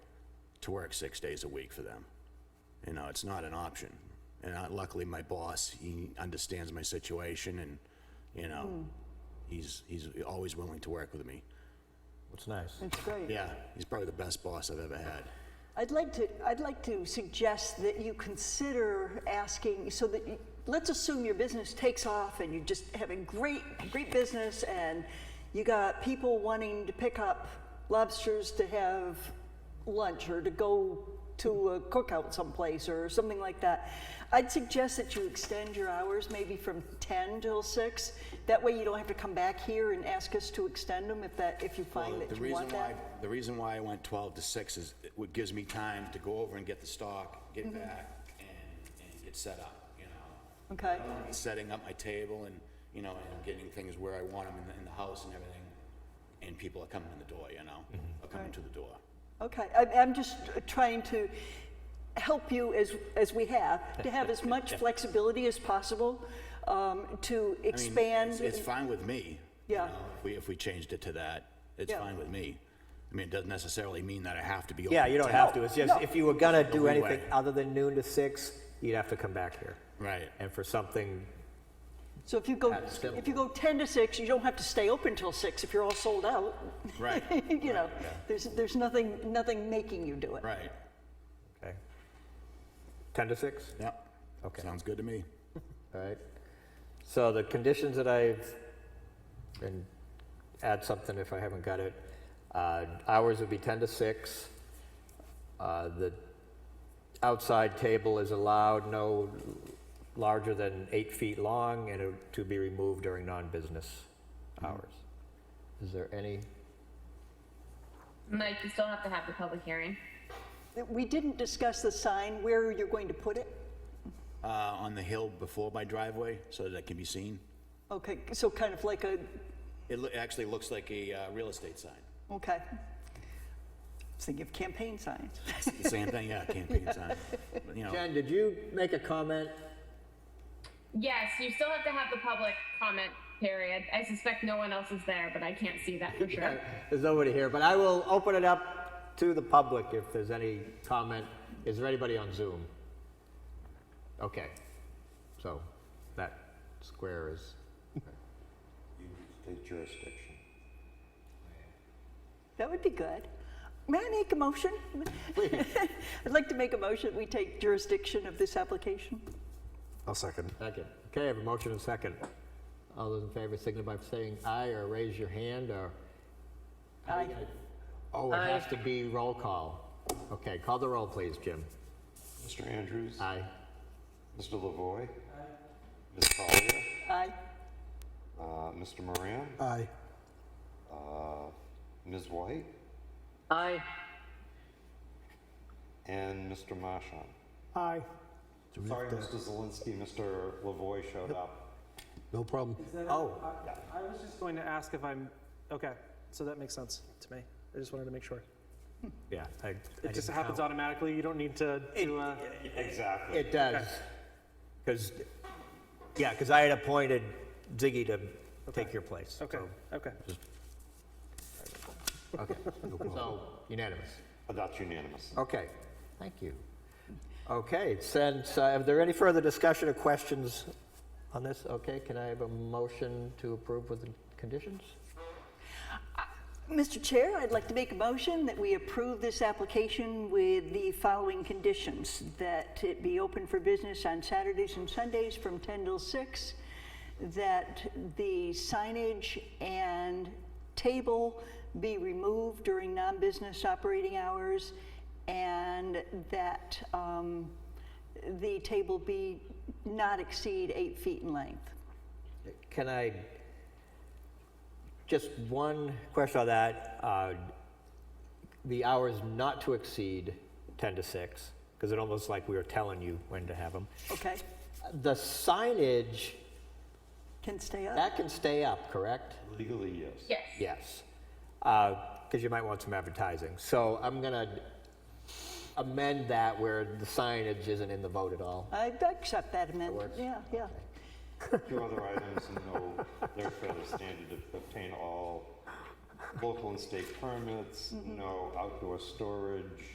to work six days a week for them. You know, it's not an option. And I- luckily, my boss, he understands my situation and, you Hmm. know, he's, he's always willing to work with me. It's nice. It's great. Yeah, he's probably the best boss I've ever had. I'd like to, I'd like to suggest that you consider asking, so that, you- let's assume your business takes off and you're just having great, great business and you got people wanting to pick up lobsters to have lunch or to go to a cookout someplace or something like that. I'd suggest that you extend your hours maybe from 10 till 6. That way you don't have to come back here and ask us to extend them if that, if you Well, find the that you reason want why, that. the reason why I went 12 to 6 is it would- gives me time to go over and get the stock, Mm-hmm. get back, and, and get set up, you know? Okay. And Setting up my table and, you know, and getting things where I want them in the, in the house and everything, and people are coming in the door, you know? Mm-hmm. Are coming Right. to the door. Okay, I, I'm just trying to help you as, as we have, to have as much flexibility as possible, um, to I mean, expand. it's- It's fine with me. you Yeah. know, If we, if we changed it to that, it's Yeah. fine with me. I mean, it doesn't necessarily mean that I have to be open. Yeah, you don't till- have to. It's just, if you were gonna do Open anything way. other than noon to six, you'd have to come back here. Right. And for something, So if you go, That's good. if you go 10 to 6, you don't have to stay open till 6 if you're all sold out. Right, You know, there's, there's nothing, nothing making you do it. right. okay. 10 to six? Yep. Okay. Sounds good to me. All right. So the conditions that I've, and add something if I haven't got it, uh, hours would be 10 to 6. Uh, The outside table is allowed no larger than eight feet long and it- to be removed during non-business hours. Is there any? Mike, you still have to have the public hearing. We didn't discuss the sign, where you're going to put it. Uh, on the hill before my driveway, so that it can be seen. Okay, so kind of like a, It loo- actually looks like a uh, real estate sign. okay. I was thinking of campaign signs. It's the same thing, yeah, campaign sign. But, You know, Jen, did you make a comment? Yes, you still have to have the public comment period. I suspect no one else is there, but I can't see that for sure. There's nobody here, but I will open it up to the public if there's any comment. Is there anybody on Zoom? Okay, so that square is, State jurisdiction. That would be good. May I make a motion? I'd like to make a motion, we take jurisdiction of this application. I'll second. second. Okay, I have a motion and a second. All those in favor signify by saying aye or raise your hand or, Aye. oh, it has to be roll call. Okay, call the roll, please, Jim. Mr. Andrews? Aye. Mr. Lavoy? Ms. Collier? Aye. Uh, Mr. Moran? Aye. Ms. White? Aye. And Mr. Marshon? Aye. Sorry, Mr. Zelinski, Mr. Lavoy showed up. No problem. Oh, I was just going to ask if I'm, okay, so that makes sense to me. I just wanted to make sure. yeah. I- uh, I It just didn't happens count. automatically. You don't need to, to, uh, Exactly. It does. Because, yeah, because I had appointed Ziggy to take your place. okay, okay. so- Okay, so unanimous. But That's unanimous. Okay, thank you. Okay, since, uh, are there any further discussion or questions on this? Okay, can I have a motion to approve with the conditions? Mr. Chair, I'd like to make a motion that we approve this application with the following conditions. That it be open for business on Saturdays and Sundays from 10 till 6. That the signage and table be removed during non-business operating hours. And that um, the table be not exceed eight feet in length. Can I, just one question on that. uh, The hours not to exceed 10 to 6, because it almost like we were telling you when to have them. Okay? The signage, Can stay up. that can stay up, correct? Legally, yes. Yes. Yes. Because you might want some advertising. So I'm going to amend that where the signage isn't in the vote at all. I accept that amendment. Yeah, yeah. Your other items, no, they're fairly standard, to obtain all local and state permits, no outdoor storage,